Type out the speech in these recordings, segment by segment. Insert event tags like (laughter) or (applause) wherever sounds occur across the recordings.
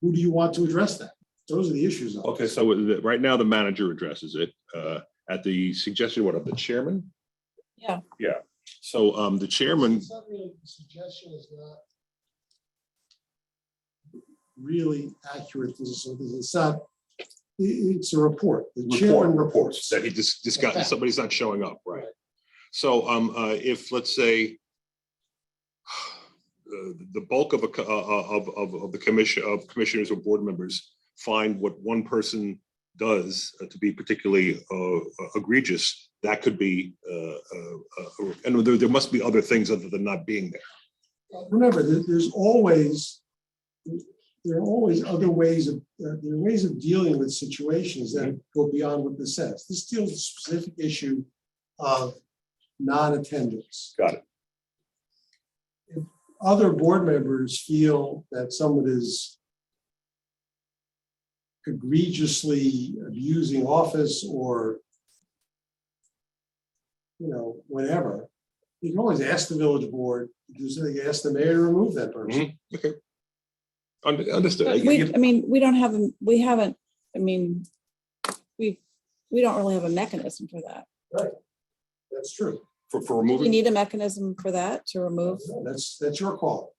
who do you want to address that? Those are the issues. of it. Okay, so with the- right now the manager addresses it uh, at the suggestion, what, of the chairman? Yeah. Yeah, so um, the chairman, It's not really- the Suggestion is not really accurate. This is- It's not, i- it's a report. The chairman report reports that he just, just got, somebody's not showing up, right? So um, uh, if, let's say, (sighs) uh, the bulk of, a co- uh, of, of, of the commission, of commissioners or board members find what one person does uh, to be particularly uh, egregious, that could be, uh, uh, uh, and there, there must be other things other than not being there. remember, there- there's always, there are always other ways of, there there are ways of dealing with situations that go beyond what this says. This deals with a specific issue of non-attendance. Got it. If Other board members feel that someone is egregiously abusing office or you know, whatever, you can always ask the village board, do something, ask the mayor to remove that person. Und- Understood. I- But I- We, I mean, we don't have, a- we haven't, I mean, we, we don't really have a mechanism for that. That's true. For, for Do We removing, need a mechanism for that to remove. That's, that's your call.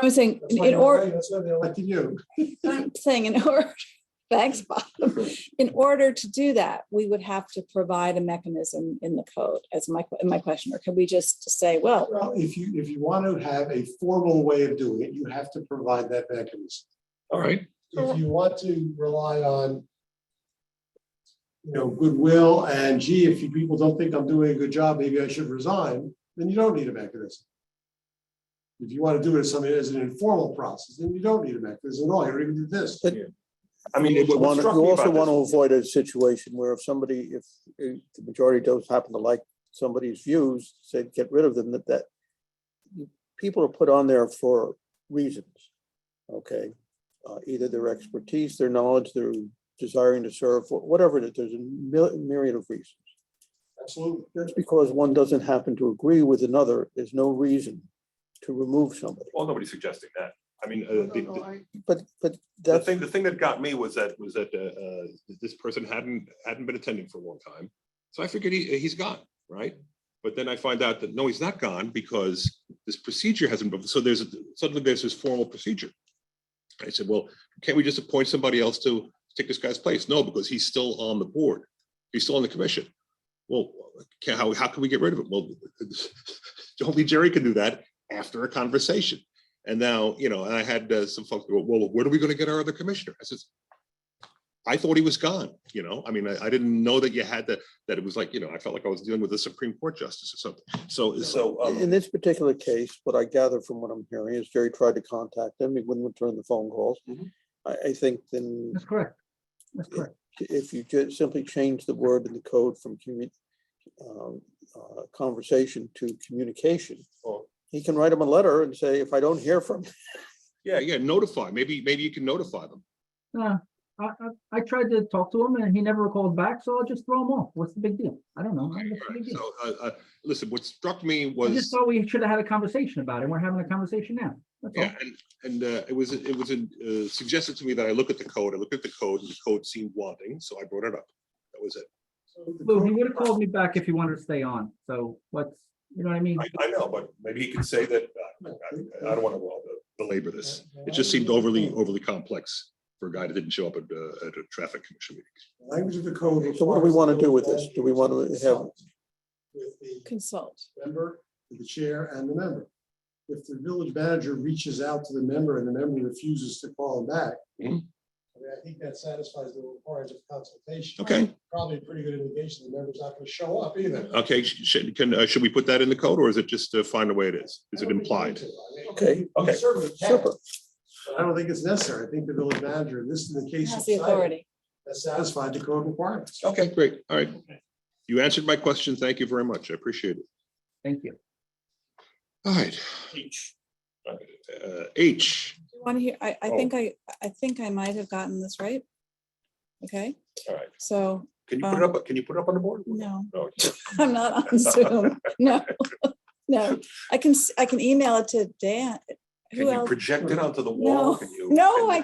I'm saying, That's why in order, That's why they elected you. I'm saying in (laughs) order, thanks, Bob. In order to do that, we would have to provide a mechanism in the code as my, my question, or could we just say, well, Well, if you, if you want to have a formal way of doing it, you have to provide that mechanism. all right, If you want to rely on you know, goodwill and gee, if you people don't think I'm doing a good job, maybe I should resign, then you don't need a mechanism. If you want to do it as something as an informal process, then you don't need a mechanism at all. You're even do this. I mean, it- You what wanna- struck you me also about want to this- avoid a situation where if somebody, if if the majority does happen to like somebody's views, say, get rid of them, that, that people are put on there for reasons, okay? Uh, Either their expertise, their knowledge, their desiring to serve, wh- whatever it is, there's a mil- myriad of reasons. Absolutely. Just because one doesn't happen to agree with another, there's no reason to remove somebody. Well, nobody's suggesting that. I mean, uh, No, the, no, the- no, I- But, but the that's, thing, the thing that got me was that, was that, uh, uh, this person hadn't, hadn't been attending for a long time. So I figured he, uh, he's gone, right? But then I find out that, no, he's not gone because this procedure hasn't, been so there's, a- suddenly there's this formal procedure. I said, well, can't we just appoint somebody else to take this guy's place? No, because he's still on the board. He's still on the commission. Well, can, how, how can we get rid of it? Well, (laughs) only Jerry can do that after a conversation. And now, you know, and I had uh, some folks go, well, where are we going to get our other commissioner? I says, I thought he was gone, you know, I mean, I, I didn't know that you had to, that it was like, you know, I felt like I was dealing with a Supreme Court justice or something. So, so. um, In this particular case, what I gather from what I'm hearing is Jerry tried to contact them. He wouldn't return the phone calls. Mhm. I, I think then That's correct. That's correct. if you just simply change the word in the code from commu- um, uh, conversation to communication, Oh. he can write him a letter and say, if I don't hear from, Yeah, yeah, notify, maybe, maybe you can notify them. Uh, I, I, I tried to talk to him and he never called back, so I'll just throw him off. What's the big deal? I don't know. What's the big deal? So, uh, uh, listen, what struck me I just was, thought we should have had a conversation about it. We're having a conversation now. That's all. yeah, and, and uh, it was, it was uh, suggested to me that I look at the code, I looked at the code, and the code seemed wanting, so I brought it up. That was it. Lou, he would have called me back if he wanted to stay on. So what's, you know what I mean? I, I know, but maybe he could say that, uh, I, I don't want to belabor this. It just seemed overly, overly complex for a guy that didn't show up at, uh, at a traffic commission meeting. Language of the code. So what do we wanna requires do with this? Do we wanna that have- With the consult. member, with the chair and the member. If the village manager reaches out to the member and the member refuses to call him back. I Mhm. mean, I think that satisfies the requirements of consultation. Okay, Probably a pretty good indication the member's not gonna show up either. okay, sh- should, can, uh, should we put that in the code or is it just uh, find a way it is? Is it implied? Okay, okay. Certainly can. super. I don't think it's necessary. I think the village manager, in this is the case. Has the authority. That satisfied the code requirements. Okay, great, all right. You answered my question. Thank you very much. I appreciate it. Thank you. All right. H. Uh, H, Want to hear, I, I Oh. think I, I think I might have gotten this right. Okay, all right. so, um, Can you put it up, can you put it up on the board? no, No. (laughs) (laughs) I'm not on Zoom. No, (laughs) no, I can, s- I can email it to Dan. Can Who you else? project it onto the wall? No. Can you- No, can- I